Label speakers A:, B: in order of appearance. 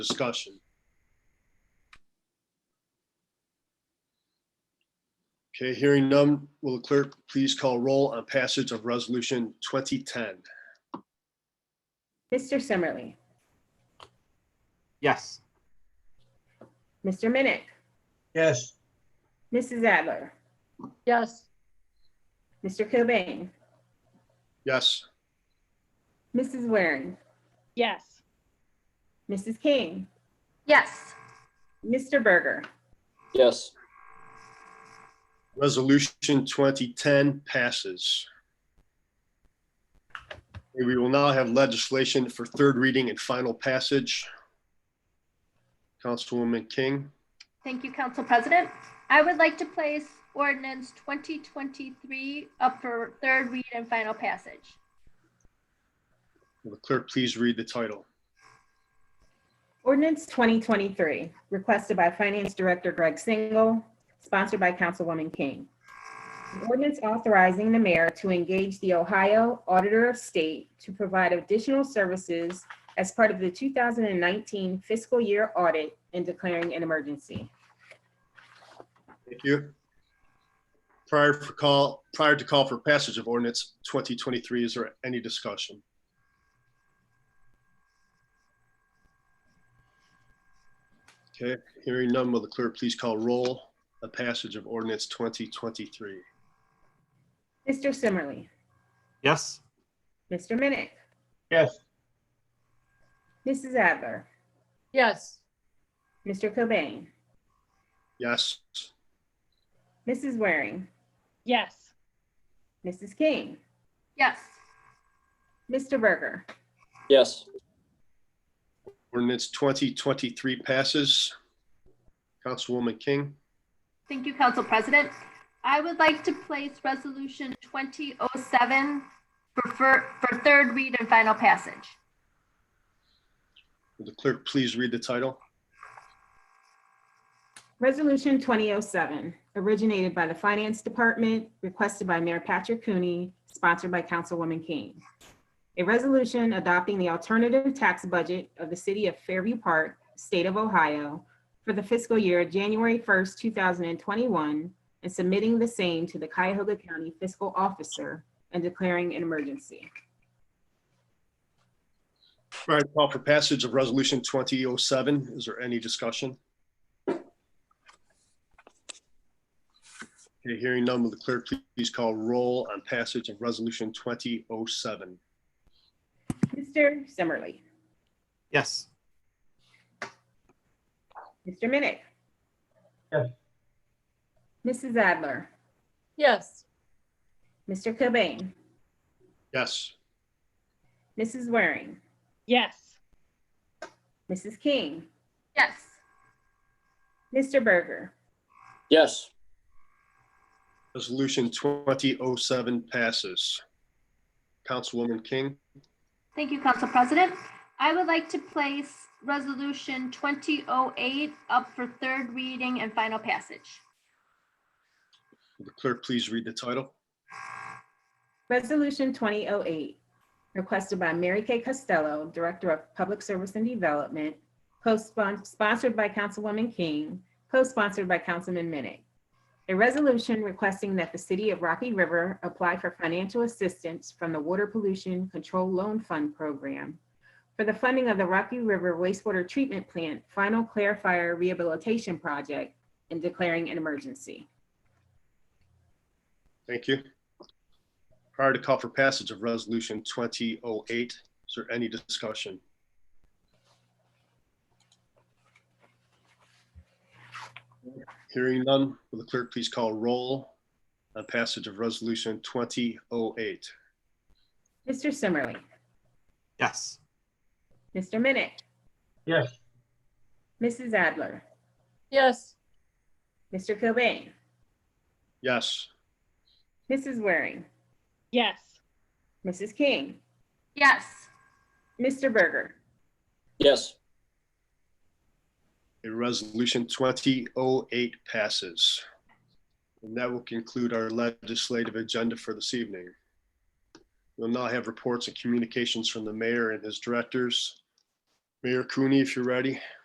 A: discussion? Okay, hearing none, will the clerk please call roll on passage of resolution 2010?
B: Mr. Summerly,
C: Yes.
B: Mr. Minnick,
D: yes,
B: Mrs. Adler,
E: yes,
B: Mr. Cobain,
A: Yes,
B: Mrs. Waring,
F: yes,
B: Mrs. King,
E: yes,
B: Mr. Berger,
G: yes,
A: resolution 2010 passes. Okay, We will now have legislation for third reading and final passage. Councilwoman King?
H: Thank you, Council President. I would like to place ordinance 2023 up for third read and final passage.
A: Will the clerk please read the title?
B: Ordinance 2023, requested by Finance Director Greg Single, sponsored by Councilwoman King. An Ordinance authorizing the mayor to engage the Ohio Auditor of State to provide additional services as part of the 2019 fiscal year audit and declaring an emergency.
A: Thank you. Prior for call, prior to call for passage of ordinance 2023, is there any discussion? Okay, hearing none, will the clerk please call roll the passage of ordinance 2023?
B: Mr. Summerly,
C: Yes.
B: Mr. Minnick,
D: yes,
B: Mrs. Adler,
E: yes,
B: Mr. Cobain,
A: Yes,
B: Mrs. Waring,
F: yes,
B: Mrs. King,
H: Yes,
B: Mr. Berger,
G: yes,
A: ordinance 2023 passes. Councilwoman King,
H: thank you, Council President. I would like to place resolution 2007 for, for, for third read and final passage.
A: will the clerk please read the title?
B: Resolution 2007, originated by the Finance Department, requested by Mayor Patrick Cooney, sponsored by Councilwoman King. A resolution adopting the alternative tax budget of the city of Fairview Park, state of Ohio, for the fiscal year January 1st, 2021, and submitting the same to the Cuyahoga County Fiscal Officer and declaring an emergency.
A: All right, call for passage of resolution 2007. Is there any discussion? Okay, hearing none, will the clerk please call roll on passage of resolution 2007?
B: Mr. Summerly,
C: Yes.
B: Mr. Minnick.
D: Yes.
B: Mrs. Adler,
E: yes,
B: Mr. Cobain,
A: Yes,
B: Mrs. Waring,
F: yes,
B: Mrs. King,
H: Yes,
B: Mr. Berger,
G: yes,
A: resolution 2007 passes. Councilwoman King,
H: thank you, Council President. I would like to place resolution 2008 up for third reading and final passage.
A: will the clerk please read the title?
B: Resolution 2008, requested by Mary Kay Costello, Director of Public Service and Development, co-sponsored by Councilwoman King, co-sponsored by Councilman Minnick. A resolution requesting that the City of Rocky River apply for financial assistance from the Water Pollution Control Loan Fund Program for the funding of the Rocky River Wastewater Treatment Plant Final Clarifier Rehabilitation Project and declaring an emergency.
A: Thank you. Prior to call for passage of resolution 2008, is there any discussion? Hearing none, will the clerk please call roll on passage of resolution 2008?
B: Mr. Summerly.
C: Yes.
B: Mr. Minnick.
D: yes,
B: Mrs. Adler,
E: yes,
B: Mr. Cobain,
A: Yes,
B: Mrs. Waring,
F: yes,
B: Mrs. King,
H: Yes.
B: Mr. Berger,
G: yes,
A: a resolution 2008 passes. And that will conclude our legislative agenda for this evening. We'll now have reports and communications from the mayor and his directors. Mayor Cooney, if you're ready.